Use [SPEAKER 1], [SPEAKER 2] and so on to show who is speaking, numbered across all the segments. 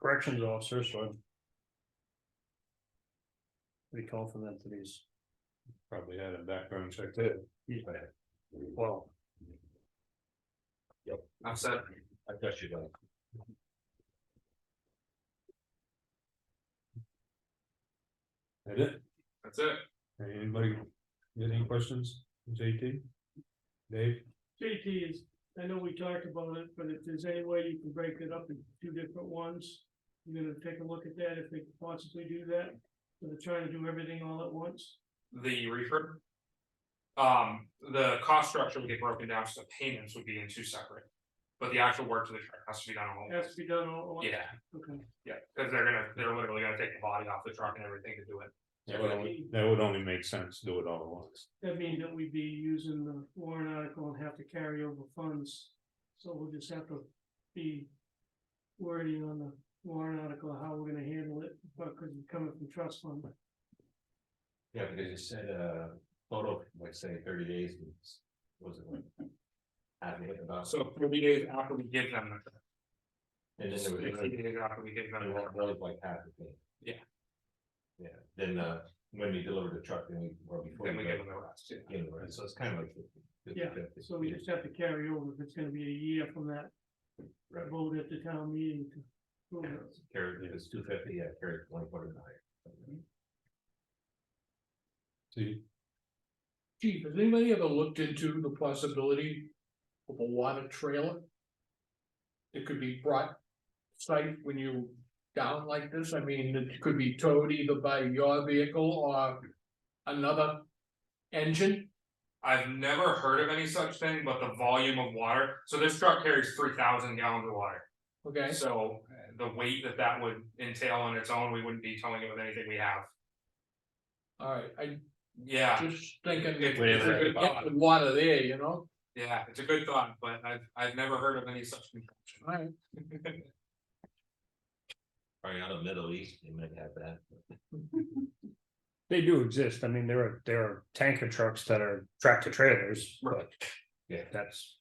[SPEAKER 1] corrections officer, so I'm. Pretty confident that he's,
[SPEAKER 2] Probably had a background check too.
[SPEAKER 1] he's, well,
[SPEAKER 2] I'm set. I got you done. That it? That's it. Anybody, got any questions, JT? Dave?
[SPEAKER 3] JT is, I know we talked about it, but if there's any way you can break it up into two different ones, you're gonna take a look at that if they could possibly do that. So they're trying to do everything all at once.
[SPEAKER 4] the reefer. Um, the cost structure would get broken down, so payments would be in two separate. But the actual work to the truck has to be done
[SPEAKER 3] It
[SPEAKER 4] all.
[SPEAKER 3] Has to be done all at once.
[SPEAKER 4] Yeah,
[SPEAKER 3] Okay.
[SPEAKER 4] yeah, because they're gonna, they're literally gonna take the body off the truck and everything to do it.
[SPEAKER 2] That would only- that would only make sense, do it all at once.
[SPEAKER 3] That means that we'd be using the warrant article and have to carry over funds. So we'll just have to be wordy on the warrant article, how we're gonna handle it, because we're coming from trust fund.
[SPEAKER 5] Yeah, because you said, uh, photo, like say thirty days, was- was it like? Having it about,
[SPEAKER 4] So thirty days after we give them the. truck,
[SPEAKER 5] and then there was, another-
[SPEAKER 4] Sixty days after we give them
[SPEAKER 5] and
[SPEAKER 4] the truck.
[SPEAKER 5] that was like half the thing.
[SPEAKER 4] Yeah.
[SPEAKER 5] Yeah, then, uh, when we delivered the truck, then we, or before.
[SPEAKER 4] then we give them
[SPEAKER 5] got-
[SPEAKER 4] the rest, yeah.
[SPEAKER 5] gave them the rest. so it's kind of like. fifty- fifty-
[SPEAKER 3] Yeah,
[SPEAKER 5] fifty.
[SPEAKER 3] So we just have to carry over if it's gonna be a year from that
[SPEAKER 5] Right.
[SPEAKER 3] vote at the town meeting to. prove
[SPEAKER 5] Yeah,
[SPEAKER 3] it.
[SPEAKER 5] Carry, if it's two fifty, yeah, carry one quarter higher.
[SPEAKER 3] Mm-hmm.
[SPEAKER 2] See,
[SPEAKER 6] uh, Chief, has anybody ever looked into the possibility of a water trailer? That could be brought site when you down like this, I mean, it could be towed either by your vehicle or another engine.
[SPEAKER 4] I've never heard of any such thing, but the volume of water, so this truck carries three thousand gallons of water.
[SPEAKER 6] Okay,
[SPEAKER 4] So uh, the weight that that would entail on its own, we wouldn't be towing it with anything we have.
[SPEAKER 6] alright, I
[SPEAKER 4] Yeah.
[SPEAKER 6] just thinking.
[SPEAKER 4] It- it's
[SPEAKER 6] if you
[SPEAKER 4] a good
[SPEAKER 6] could
[SPEAKER 4] thought.
[SPEAKER 6] get the Water there, you know,
[SPEAKER 4] Yeah, it's a good thought, but I've, I've never heard of any such contraption.
[SPEAKER 6] alright,
[SPEAKER 5] Probably out of Middle East, they might have that.
[SPEAKER 1] they do exist, I mean, there are, there are tanker trucks that are tractor trailers, but.
[SPEAKER 5] Yeah.
[SPEAKER 1] That's,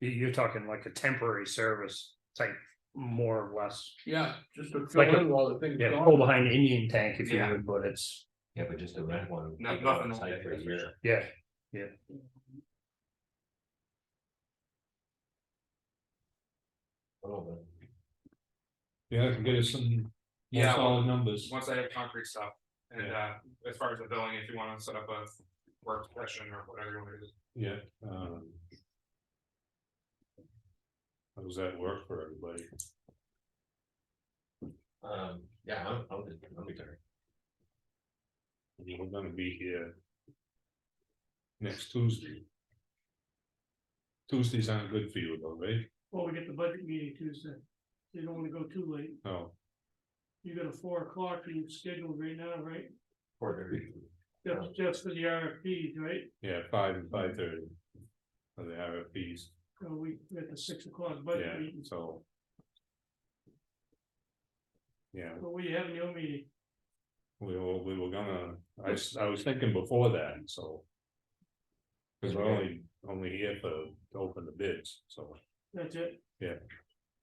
[SPEAKER 1] you, you're talking like a temporary service type, more or less,
[SPEAKER 6] yeah, just to
[SPEAKER 1] Like
[SPEAKER 6] fill
[SPEAKER 1] a-
[SPEAKER 6] in while the thing's
[SPEAKER 1] yeah,
[SPEAKER 6] going.
[SPEAKER 1] pull behind Indian tank if you
[SPEAKER 4] Yeah.
[SPEAKER 1] would, but it's,
[SPEAKER 5] Yeah, but just to rent one.
[SPEAKER 4] No-
[SPEAKER 5] keep it on
[SPEAKER 4] nothing like
[SPEAKER 5] site
[SPEAKER 4] that,
[SPEAKER 5] for a
[SPEAKER 4] that's for
[SPEAKER 5] year.
[SPEAKER 4] sure.
[SPEAKER 1] yeah.
[SPEAKER 5] Oh, but-
[SPEAKER 2] yeah, I can get us some more
[SPEAKER 4] Yeah,
[SPEAKER 2] solid numbers.
[SPEAKER 4] Once I have concrete stuff, and uh, as far as the billing, if you wanna set up a work session or whatever you wanna do.
[SPEAKER 2] Yeah, um. How does that work for everybody?
[SPEAKER 5] Um, yeah, I'm, I'm, I'm retired.
[SPEAKER 2] I mean, We're gonna be here. Next Tuesday. Tuesdays aren't good for you though, right?
[SPEAKER 3] Well, we get the budget meeting Tuesday. You don't wanna go too late.
[SPEAKER 2] No,
[SPEAKER 3] You got a four o'clock you scheduled right now, right?
[SPEAKER 5] Four thirty.
[SPEAKER 3] Just, just for the RFPs, right?
[SPEAKER 2] yeah, five and five thirty. For the RFPs,
[SPEAKER 3] So we, we at the six o'clock budget
[SPEAKER 2] yeah,
[SPEAKER 3] meeting,
[SPEAKER 2] so. Yeah,
[SPEAKER 3] but we have no meeting.
[SPEAKER 2] we were, we were gonna, I, s- I was thinking before that, so. Cause we're only, only here for, to open the bids, so.
[SPEAKER 3] That's it.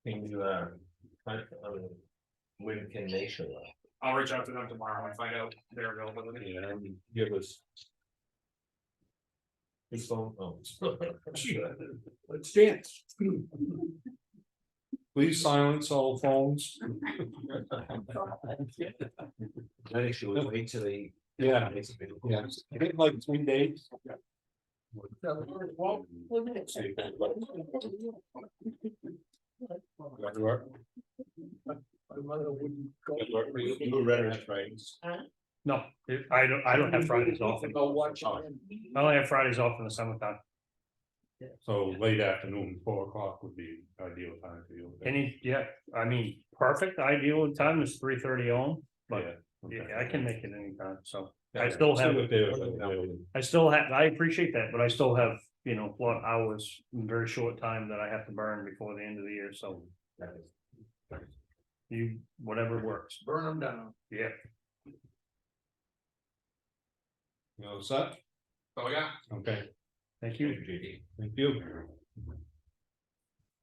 [SPEAKER 5] Can you, uh, find, um, when can they show up?
[SPEAKER 4] I'll reach out to them tomorrow and find out their availability.
[SPEAKER 2] Yeah, and give us.
[SPEAKER 5] His phone, oh.
[SPEAKER 6] Let's dance.
[SPEAKER 2] Please silence all phones.
[SPEAKER 5] That issue, we wait till they.
[SPEAKER 2] Yeah,
[SPEAKER 5] It's available.
[SPEAKER 2] yeah, I think like three days. That work?
[SPEAKER 6] My mother wouldn't go.
[SPEAKER 2] That work for You You were ready, right?
[SPEAKER 1] No, it- I don't, I don't have Fridays off,
[SPEAKER 6] Go watch
[SPEAKER 1] I
[SPEAKER 6] it.
[SPEAKER 1] only have Fridays off in the summertime,
[SPEAKER 2] So late afternoon, four o'clock would be ideal time for you.
[SPEAKER 1] any, yeah, I mean, perfect ideal time is three thirty on. but-
[SPEAKER 2] Yeah,
[SPEAKER 1] Yeah,
[SPEAKER 2] okay.
[SPEAKER 1] I can make it anytime, so
[SPEAKER 2] Yeah,
[SPEAKER 1] I still
[SPEAKER 2] see
[SPEAKER 1] have-
[SPEAKER 2] what they're available.
[SPEAKER 1] I still have, I appreciate that, but I still have, you know, a lot of hours, in very short time that I have to burn before the end of the year, so
[SPEAKER 5] That is-
[SPEAKER 1] you, whatever works.
[SPEAKER 6] Burn them down.
[SPEAKER 1] Yeah,
[SPEAKER 2] You know, set,
[SPEAKER 4] So, yeah.
[SPEAKER 2] okay,
[SPEAKER 4] Oh,
[SPEAKER 1] thank you.
[SPEAKER 5] JD.
[SPEAKER 2] thank you.